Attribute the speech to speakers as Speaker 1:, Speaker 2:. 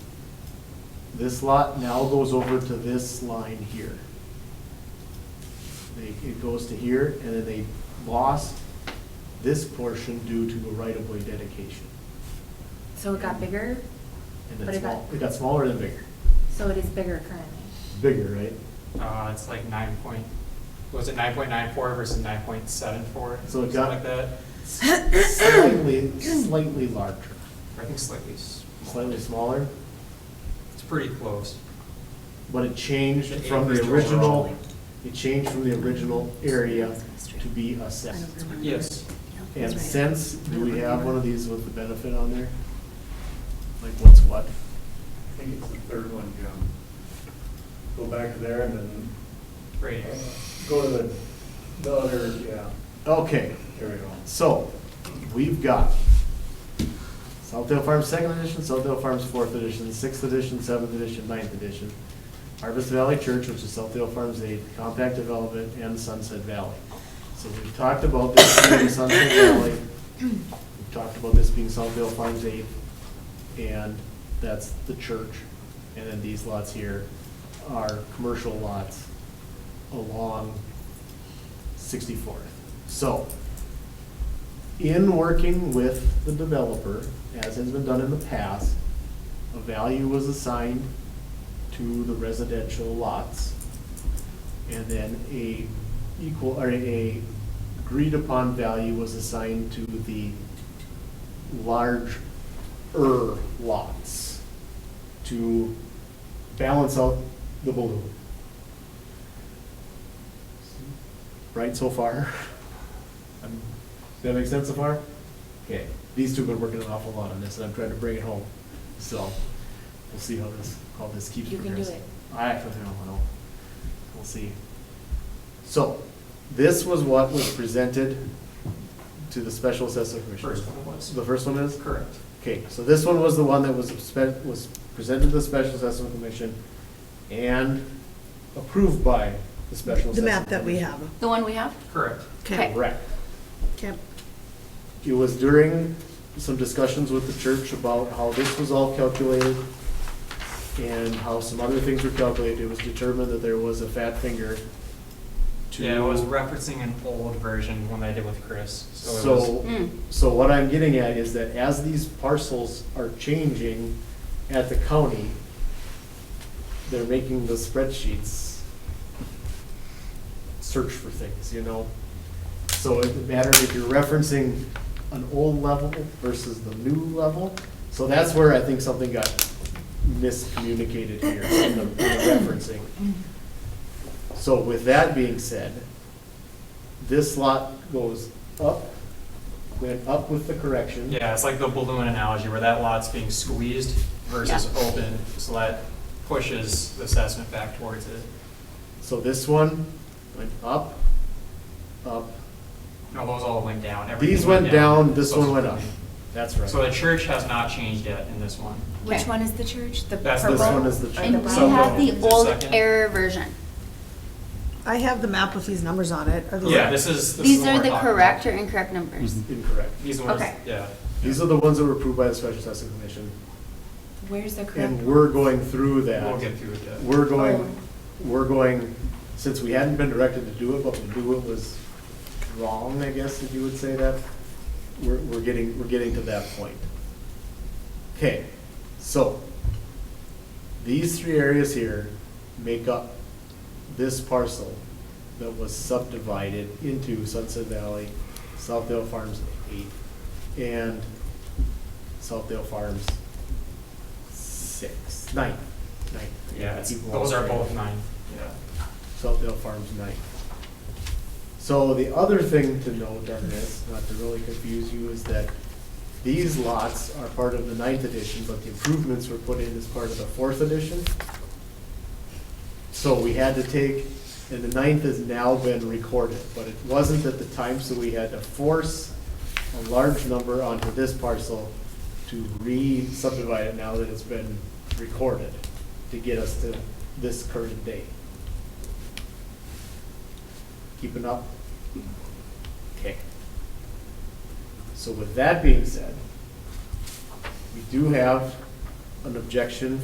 Speaker 1: This lot now goes over to this line here. They, it goes to here, and then they lost this portion due to a right-of-way dedication.
Speaker 2: So it got bigger,
Speaker 1: And
Speaker 2: But
Speaker 1: it's
Speaker 2: it got-
Speaker 1: small, it got smaller than bigger,
Speaker 2: so it is bigger currently.
Speaker 1: bigger, right?
Speaker 3: Uh, it's like nine point, was it nine point nine four versus nine point seven four?
Speaker 1: So it
Speaker 3: Something
Speaker 1: got-
Speaker 3: like that,
Speaker 1: Slightly, slightly larger,
Speaker 3: I think slightly, s-
Speaker 1: slightly smaller,
Speaker 3: it's pretty close.
Speaker 1: but it changed
Speaker 3: The
Speaker 1: from the
Speaker 3: acreage
Speaker 1: original,
Speaker 3: overall.
Speaker 1: it changed from the original area to be a set.
Speaker 3: Yes.
Speaker 1: And since, do we have one of these with the benefit on there? Like what's what?
Speaker 4: I think it's the third one, Jim. Go back to there and then
Speaker 3: Right,
Speaker 4: uh, go to the, the other, yeah,
Speaker 1: Okay,
Speaker 4: there we go.
Speaker 1: so, we've got Southdale Farms Second Edition, Southdale Farms Fourth Edition, Sixth Edition, Seventh Edition, Ninth Edition, Harvest Valley Church, which is Southdale Farms Eight, Compact Development, and Sunset Valley. So we've talked about this being Sunset Valley, we've talked about this being Southdale Farms Eight, and that's the church. And then these lots here are commercial lots along Sixty-fourth. So, in working with the developer, as has been done in the past, a value was assigned to the residential lots. And then a equal, or a agreed upon value was assigned to the larger lots to balance out the balloon. Right so far? Um, Does that make sense so far? Okay, these two have been working an awful lot on this, and I'm trying to bring it home, so we'll see how this, how this keeps
Speaker 2: You can do
Speaker 1: progressing.
Speaker 2: it.
Speaker 1: I actually don't know, we'll see. So, this was what was presented to the special assessment commission.
Speaker 3: first one was,
Speaker 1: The first one is?
Speaker 3: correct.
Speaker 1: Okay, so this one was the one that was, spe- was presented to the Special Assessment Commission and approved by the Special Assessment.
Speaker 5: The map that we
Speaker 1: Commission.
Speaker 5: have.
Speaker 6: The one we have?
Speaker 3: Correct.
Speaker 6: Okay.
Speaker 1: Correct.
Speaker 5: Okay.
Speaker 1: It was during some discussions with the church about how this was all calculated and how some other things were calculated. It was determined that there was a fat finger to.
Speaker 3: Yeah, I was referencing an old version, one that I did with Chris, so it was.
Speaker 1: So,
Speaker 6: Mm.
Speaker 1: so what I'm getting at is that as these parcels are changing at the county, they're making the spreadsheets search for things, you know? So it matters if you're referencing an old level versus the new level. So that's where I think something got miscommunicated here in the in the referencing. So with that being said, this lot goes up, went up with the correction.
Speaker 3: Yeah, it's like the balloon analogy where that lot's being squeezed versus
Speaker 6: Yeah.
Speaker 3: open, so that pushes the assessment back towards it.
Speaker 1: So this one went up, up,
Speaker 3: No, those all went down.
Speaker 1: these
Speaker 3: everything
Speaker 1: went down, this
Speaker 3: Those-
Speaker 1: one went up. That's right.
Speaker 3: So the church has not changed yet in this one.
Speaker 2: Which
Speaker 6: Okay.
Speaker 2: one is the church? The
Speaker 3: That's
Speaker 2: purple?
Speaker 1: This one is the
Speaker 2: or
Speaker 1: church.
Speaker 6: And we
Speaker 2: brown?
Speaker 6: have
Speaker 3: Is
Speaker 6: the
Speaker 3: there a
Speaker 6: old
Speaker 3: second?
Speaker 6: error version.
Speaker 5: I have the map with these numbers on it. Are these-
Speaker 3: Yeah, this is. this is
Speaker 6: These
Speaker 3: what
Speaker 6: are
Speaker 3: we're
Speaker 6: the
Speaker 3: talking about.
Speaker 6: correct or incorrect numbers.
Speaker 1: Mm-hmm. Incorrect.
Speaker 3: These ones,
Speaker 6: Okay.
Speaker 3: yeah.
Speaker 1: These are the ones that were approved by the Special Assessment Commission.
Speaker 2: Where's the correct?
Speaker 1: And
Speaker 2: one?
Speaker 1: we're going through that.
Speaker 3: We'll get through it. yeah.
Speaker 1: We're going, we're going, since we hadn't been directed to do it, but we knew it was wrong, I guess, if you would say that, we're, we're getting, we're getting to that point. Okay, so, these three areas here make up this parcel that was subdivided into Sunset Valley, Southdale Farms eight, and Southdale Farms six, nine, nine.
Speaker 3: Yeah, it's-
Speaker 1: Keep
Speaker 3: those are
Speaker 1: going.
Speaker 3: both nine, yeah.
Speaker 1: Southdale Farms night. So the other thing to note on this, not to really confuse you, is that these lots are part of the ninth edition, but the improvements were put in as part of the fourth edition. So we had to take, and the ninth has now been recorded, but it wasn't at the time, so we had to force a large number onto this parcel to re-subdivide it now that it's been recorded to get us to this current date. Keeping up? Okay. So with that being said, we do have an objection